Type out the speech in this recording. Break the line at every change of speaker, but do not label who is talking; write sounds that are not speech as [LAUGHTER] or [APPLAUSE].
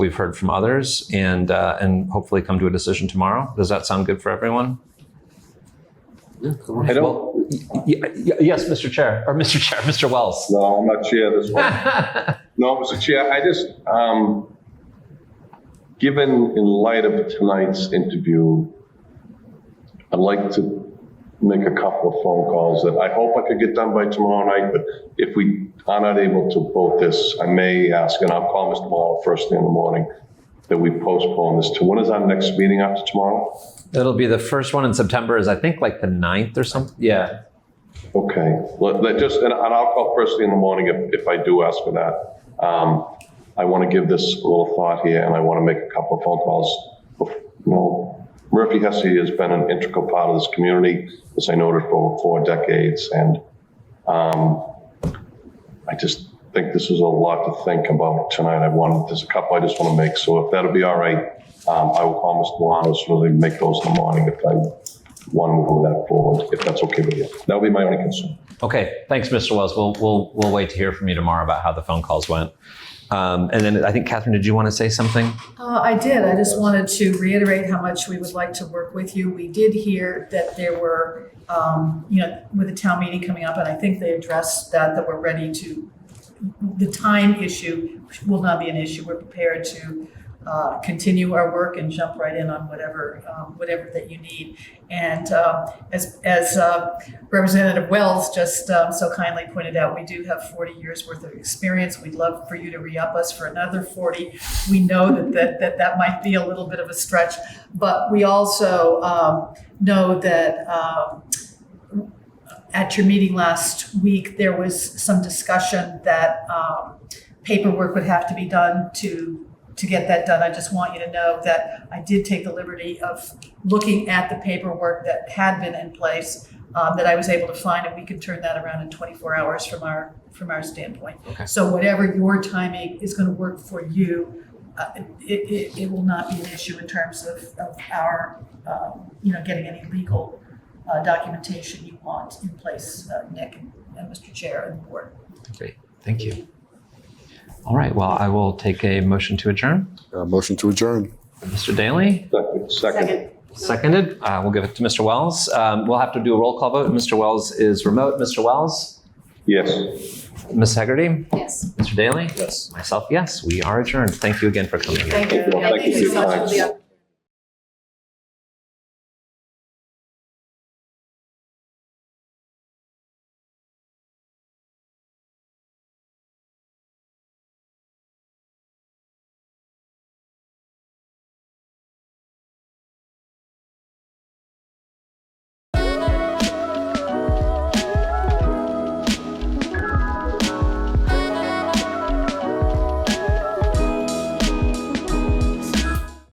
we've heard from others and uh, and hopefully come to a decision tomorrow. Does that sound good for everyone?
I don't,
Well, y- y- yes, Mr. Chair or Mr. Chair, [LAUGHS] Mr. Wells.
no, I'm not chair this one.
[LAUGHS]
No, Mr. Chair, I just, um, given in light of tonight's interview, I'd like to make a couple of phone calls that I hope I could get done by tomorrow night, but if we are not able to vote this, I may ask, and I'll call Mr. Malone first thing in the morning, that we postpone this to, when is our next meeting after tomorrow?
It'll be the first one in September. Is I think like the 9th or something. Yeah.
Okay, let, let just, and and I'll call first thing in the morning if, if I do ask for that. Um, I want to give this a little thought here and I want to make a couple of phone calls. You know, Murphy Hesse has been an integral part of this community, as I noted, for four decades. And, um, I just think this is a lot to think about tonight. I wanted, there's a couple I just want to make. So if that'll be all right, um, I will call Mr. Milano so they make those in the morning if I want to move that forward, if that's okay with you. That'll be my only concern.
Okay. Thanks, Mr. Wells. We'll we'll we'll wait to hear from you tomorrow about how the phone calls went. Um, and then I think Catherine, did you want to say something?
Uh, I did, I just wanted to reiterate how much we would like to work with you. We did hear that there were, um, you know, with the town meeting coming up, and I think they addressed that, that we're ready to, the time issue will not be an issue. We're prepared to, uh, continue our work and jump right in on whatever, um, whatever that you need. And, uh, as, as, uh, Representative Wells just, um, so kindly pointed out, we do have forty years worth of experience. We'd love for you to re-up us for another forty we know that that, that that might be a little bit of a stretch, but we also um, know that um, at your meeting last week, there was some discussion that um, paperwork would have to be done to to get that done. I just want you to know that I did take the liberty of looking at the paperwork that had been in place um, that I was able to find, and we could turn that around in 24 hours from our from our standpoint.
Okay.
So whatever your timing is going to work for you, uh, it, it, it will not be an issue in terms of, of our, um, you know, getting any legal uh, documentation you want in place, uh, Nick and Mr. Chair and the board.
Great. Thank you. All right. Well, I will take a motion to adjourn.
Uh, motion to adjourn.
Mr. Daly,
Second,
seconded. Uh, we'll give it to Mr. Wells. Um, we'll have to do a roll call vote. Mr. Wells is remote. Mr. Wells,
yes.
Ms. Hegarty,
Yes.
Mr. Daly, yes, myself, yes. We are adjourned. Thank you again for coming.
Thank
you. Thank you.
Thank you so much for the opportunity.